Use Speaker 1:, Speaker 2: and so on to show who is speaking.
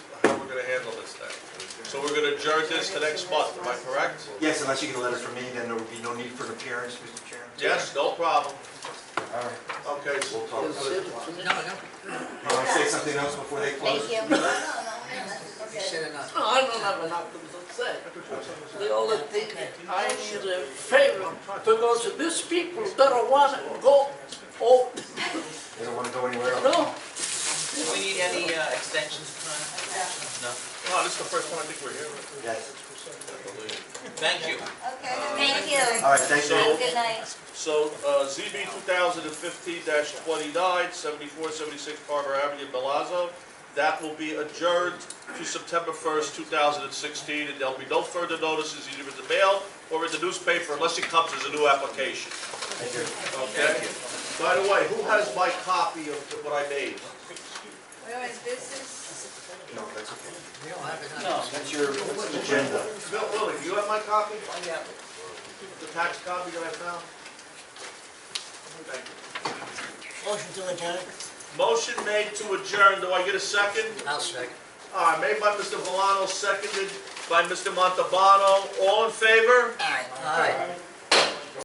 Speaker 1: adjourn this to next month, am I correct?
Speaker 2: Yes, unless you get a letter from me, then there would be no need for an appearance, Mr. Chairman.
Speaker 1: Yes, no problem.
Speaker 2: All right,
Speaker 1: Okay, so uh,
Speaker 2: we'll talk about it.
Speaker 3: No, no,
Speaker 2: You want to say something else before they close?
Speaker 4: Thank you. No, no, no,
Speaker 3: you
Speaker 4: that's okay.
Speaker 3: said enough.
Speaker 5: I don't have enough to say. The only thing, I need a favor, because these people don't want to go, oh,
Speaker 2: They don't want to go anywhere else.
Speaker 5: no,
Speaker 3: Do we need any uh, extensions tonight?
Speaker 1: Oh, this is the first one I think we're hearing.
Speaker 2: Yes.
Speaker 3: Thank you.
Speaker 4: Okay, thank you.
Speaker 2: All right, thank you.
Speaker 4: Have a good night.
Speaker 1: So, uh, ZB 2015-29, 7476 Carver Avenue, Milazzo, that will be adjourned to September 1st, 2016, and there'll be no further notices either in the mail or in the newspaper unless it comes as a new application.
Speaker 2: Thank you.
Speaker 1: Okay? By the way, who has my copy of what I made?
Speaker 4: Where is this?
Speaker 2: No, that's okay.
Speaker 3: We don't have enough.
Speaker 2: That's your that's the agenda.
Speaker 1: Bill, Willie, do you have my copy?
Speaker 3: Oh, Yeah.
Speaker 1: The tax copy that I found? Thank you.
Speaker 3: Motion to adjourn.
Speaker 1: Motion made to adjourn, do I get a second?
Speaker 3: I'll second.
Speaker 1: All right, made by Mr. Valano, seconded by Mr. Montalbano. All in favor?
Speaker 3: All right.